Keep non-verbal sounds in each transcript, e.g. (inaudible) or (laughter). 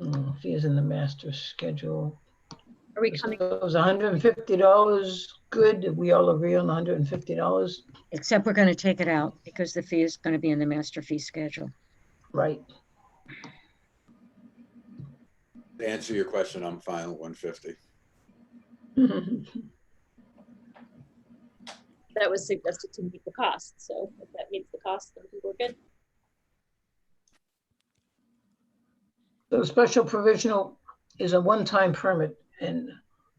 Oh, Fees in the master schedule. Are we coming, So It was hundred and fifty dollars. Good. Did we all agree on hundred and fifty dollars? Except we're going to take it out because the fee is going to be in the master fee schedule. (laughs) Right. To answer your question, I'm fine with one fifty. that was suggested to meet the cost, so if that meets the cost, then I think we're good. So special provisional is a one-time permit and,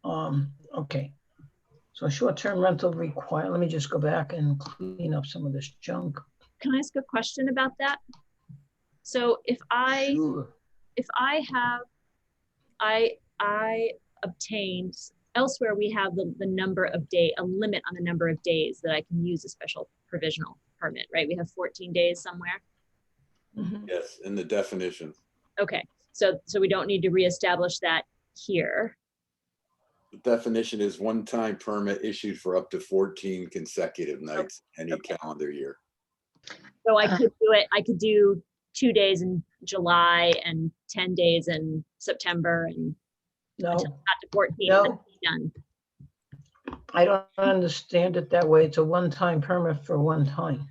um, okay. So short-term rental require, let me just go back and clean up some of this junk. Can I ask a question about that? So if I, Sure. if I have, I, I obtained, elsewhere we have the, the number of day, a limit on the number of days that I can use a special provisional permit, right? We have 14 days somewhere. Mm-hmm. Mhm. Yes, in the definition. Okay, so, so we don't need to reestablish that here. The definition is one-time permit issued for up to fourteen consecutive nights any Okay. calendar year. So I could do it, I could do two days in July and 10 days in September and No, not to 14, No. and then be done. I don't understand it that way. It's a one-time permit for one time.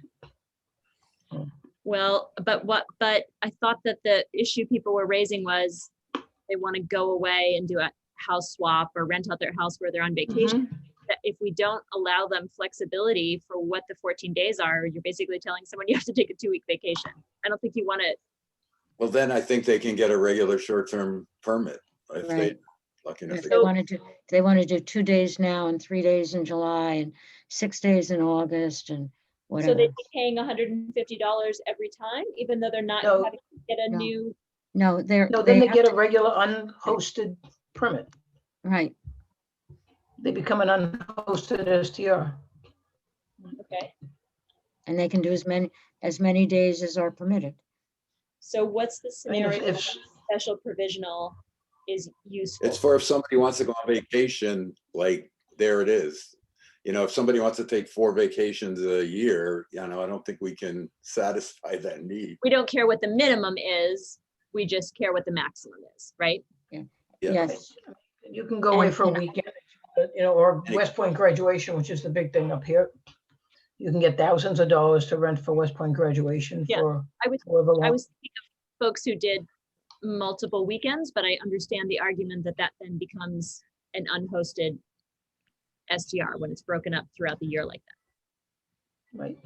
Well, but what, but I thought that the issue people were raising was they want to go away and do a house swap or rent out their house where they're on vacation. Mm-hmm. That If we don't allow them flexibility for what the 14 days are, you're basically telling someone you have to take a two week vacation. I don't think you want to, Well, then I think they can get a regular short-term permit if they, Right. lucky enough. If to they get- want to do, if they want to do two days now and three days in July and six days in August and so they'd whatever. be paying $150 every time, even though they're not No. having to get a No. new, No, they're, No, then they they have get a to, regular unhosted permit. right. They become an unhosted STR. okay. And they can do as many, as many days as are permitted. So what's the I mean, if- scenario when if- special provisional is useful? It's for if somebody wants to go on vacation, like, there it is. You know, if somebody wants to take four vacations a year, you know, I don't think we can (laughs) satisfy that need. we don't care what the minimum is, we just care what the maximum is, right? Yeah. Yes, You can go away And- for a and I- weekend, but, you know, or And it- West Point graduation, which is the big thing up here. You can get thousands of dollars to rent for West Point graduation Yeah, for I would- however I long. was thinking of folks who did multiple weekends, but I understand the argument that that then becomes an unhosted STR when it's broken up throughout the year like that. Right,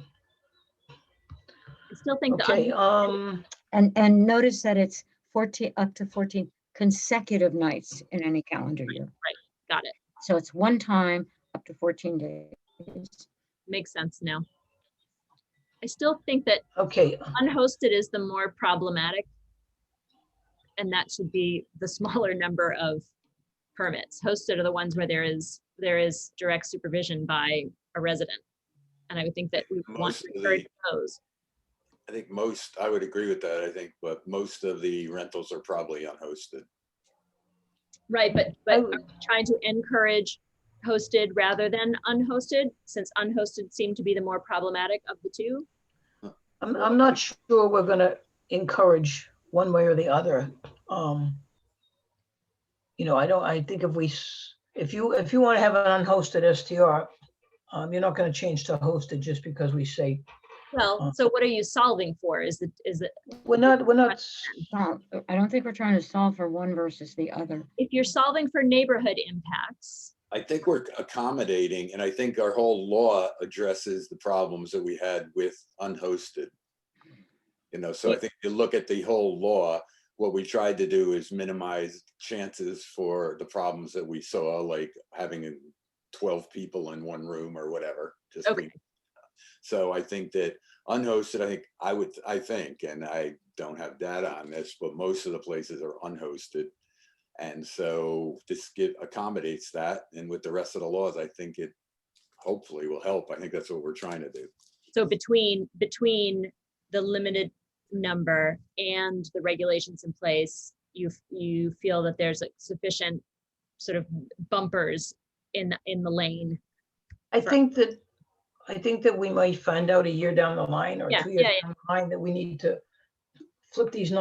I still think the, okay, un- um, and, and notice that it's 14, up to 14 consecutive nights in any calendar year. got it, So it's one time up to 14 days. makes sense now. I still think that okay, unhosted is the more problematic. And that should be the (laughs) smaller number of permits. Hosted are the ones where there is, there is direct supervision by a resident. And I would think that we want Most to of encourage the- those. I think most, I would agree with that, I think, but most of the rentals are probably unhosted. Right, but, I but would- are we trying to encourage hosted rather than unhosted, since unhosted seem to be the more problematic of the two. I'm, I'm not sure we're gonna encourage one way or the other. Um, you know, I don't, I think if we, s- if you, if you want to have an unhosted STR, um, you're not gonna change to hosted just because we say, Well, Uh. so what are you solving for? Is the, is the, we're not, we're not, Well, I don't think we're trying to solve for one versus the other. if you're solving for neighborhood impacts, I think we're accommodating, and I think our whole law addresses the problems that we had with unhosted. You know, so I think if you look at the whole law, what we tried to do is minimize chances for the problems that we saw, like having twelve people in one room or whatever. just Okay. being- So I think that unhosted, I think, I would, I think, and I don't have data on this, but most of the places are unhosted. And so this give, accommodates that, and with the rest of the laws, I think it hopefully will help. I think that's what we're trying to do. So between, between the limited number and the regulations in place, you, f- you feel that there's like sufficient sort of bumpers in, the- in the lane? I Sure. think that, I think that we might find out a year down the line or Yeah, two years yeah, yeah. down the line that we need to flip these numbers